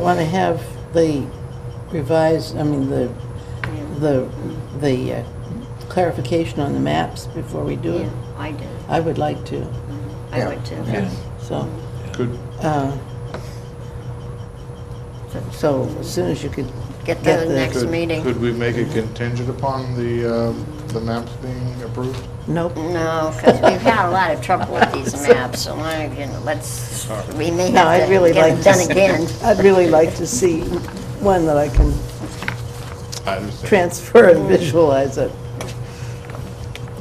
Want to have the revised, I mean, the, the, the uh, clarification on the maps before we do Yeah, it? I do. I would like to, I would too. so, Good. uh, so as soon as you could Get Get the the- next Could- meeting. Could we make it contingent upon the, uh, the maps being approved? Nope. No, because we've had a lot of trouble with these maps, so I, you know, let's, we may No, have I'd to really get like it to. done again. I'd really like to see one that I can I understand. transfer and visualize it.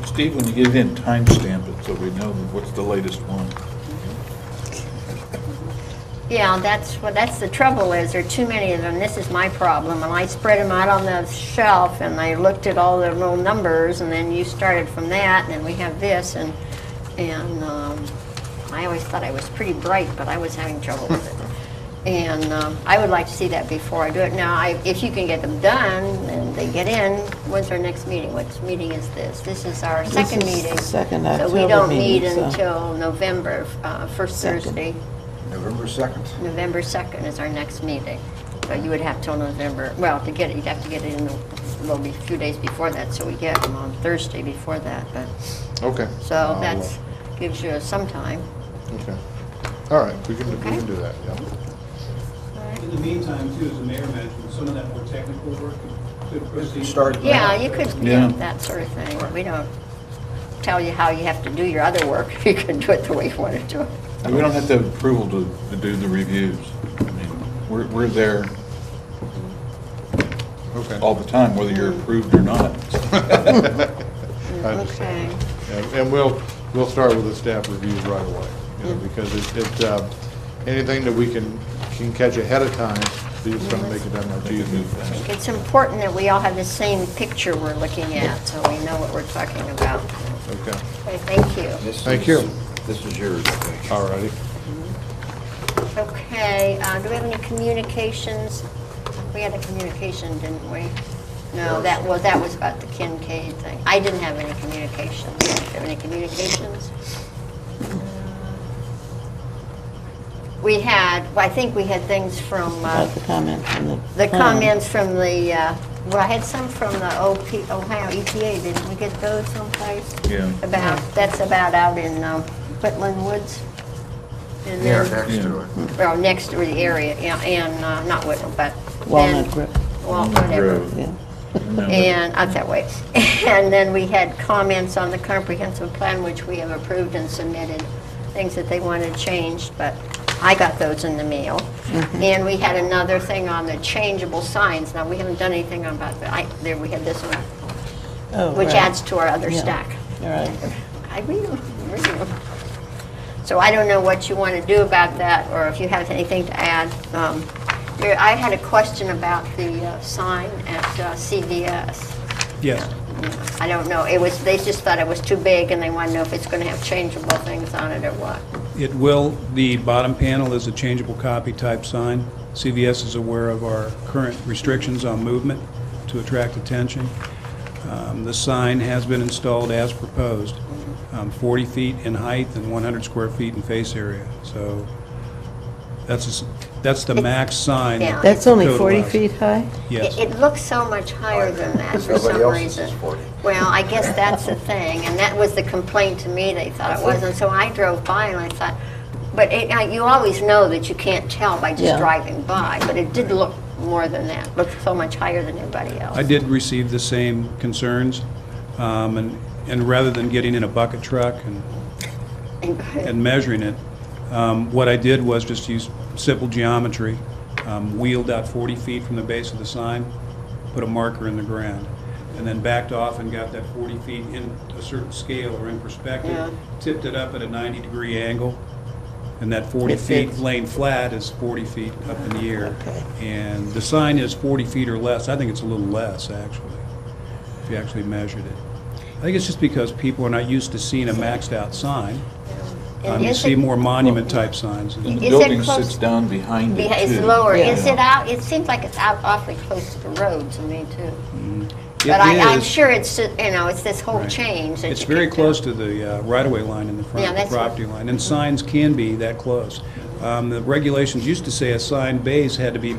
Steve, when you get it in, timestamp it so we know what's the latest one. Yeah, that's, what. that's the trouble is, there are too many of them, this is my problem, and I spread them out on the shelf, and I looked at all the little numbers, and then you started from that, and then we have this, and, and, um, I always thought I was pretty bright, but I was having trouble with it. And, um, I would like to see that before I do it. Now, I, if you can get them done, and they get in, when's our next meeting? What meeting is this? This is our second is the meeting. second So we October don't meet meeting, so- until November, uh, first Second. Thursday. November 2nd. November 2nd is our next meeting. So you would have till November, well, to get it, you'd have to get it in, the- well, be a few days before that, so we get them on Thursday before that, but, Okay, so Oh, that's, gives you some time. okay. All right, we can, we Okay. can do that, yeah. In the meantime, too, as the mayor mentioned, some of that more technical work could proceed. Start. Yeah, you could, yeah, Yeah. that sort of thing. We don't tell you how you have to do your other work, you can do it the way you want to do it. And We don't have to have approval to, to do the reviews. I mean, We're, we're there Okay. all the time, whether you're approved or not. I understand. And- And we'll, we'll start with the staff reviews right away, Mm. you know, because it, it, uh, anything that we can, can catch ahead of time, we just don't make it that much easier. It's important that we all have the same picture we're looking at, so we know what we're talking about. Okay, Okay, thank you. Thank you. This is yours, I think. all righty. Okay, uh, do we have any communications? We had a communication, didn't we? No, that was, that was about the Kincaid thing. I didn't have any communications. Do you have any communications? We had, well, I think we had things from, uh, About the comment from the. the plan. comments from the, uh, well, I had some from the OP, Ohio EPA, didn't we get those someplace? Yeah. About, that's about out in um, Whitland Woods. And Yeah, then- next to it. well, next to the area, yeah, and, uh, not Whitman, but. Walnut then- Grove, Wal- whatever. Grove. yeah. And, out that way. And then we had comments on the comprehensive plan, which we have approved and submitted, things that they wanted changed, but I got those in the mail. Mm-hmm. And we had another thing on the changeable signs. Now, we haven't done anything about that. I, there, we had this one, Oh, which right. adds to our other Yeah. stack. All right. I read them, I read them. So I don't know what you want to do about that, or if you have anything to add. Um, there- I had a question about the uh, sign at uh, CVS. Yes. I don't know, it was, they just thought it was too big, and they want to know if it's going to have changeable things on it or what. It will, the bottom panel is a changeable copy type sign. CVS is aware of our current restrictions on movement to attract attention. Um, The sign has been installed as proposed, um, 40 feet in height and 100 square feet in face area. So that's, a s- that's the max sign. Yeah. That's only Code 40 allows. feet high? Yes. It it looks so much higher than that for Nobody some else's is reason. 40. Well, I guess that's the thing, and that was the complaint to me, they thought it wasn't, so I drove by and I thought, but it- I- you always know that you can't tell by Yeah. just driving by, but it did look more than that, looked so much higher than everybody else. I did receive the same concerns, um, and and rather than getting in a bucket truck and and measuring it. Um, What I did was just use simple geometry, um, wheeled out 40 feet from the base of the sign, put a marker in the ground, and then backed off and got that 40 feet in a certain scale or in Yeah. perspective, tipped it up at a 90-degree angle, and that 40 It feet fits. laying flat is 40 feet up in the air. Okay. And the sign is 40 feet or less. I think it's a little less, actually, if you actually measured it. I think it's just because people are not used to seeing a maxed-out sign. Um, And You is see it- more monument-type signs. Is The it building close- sits down behind it, Yeah, It's too. lower. Yeah. Is it out, it seems like it's out awfully close to the road to me, too. It But I, I'm is. sure it's, you know, it's this whole Right. change that It's you very can do. close to the uh, right-of-way line in the Yeah, front, the that's- property line, and signs can be that close. Um, The regulations used to say a sign base had to be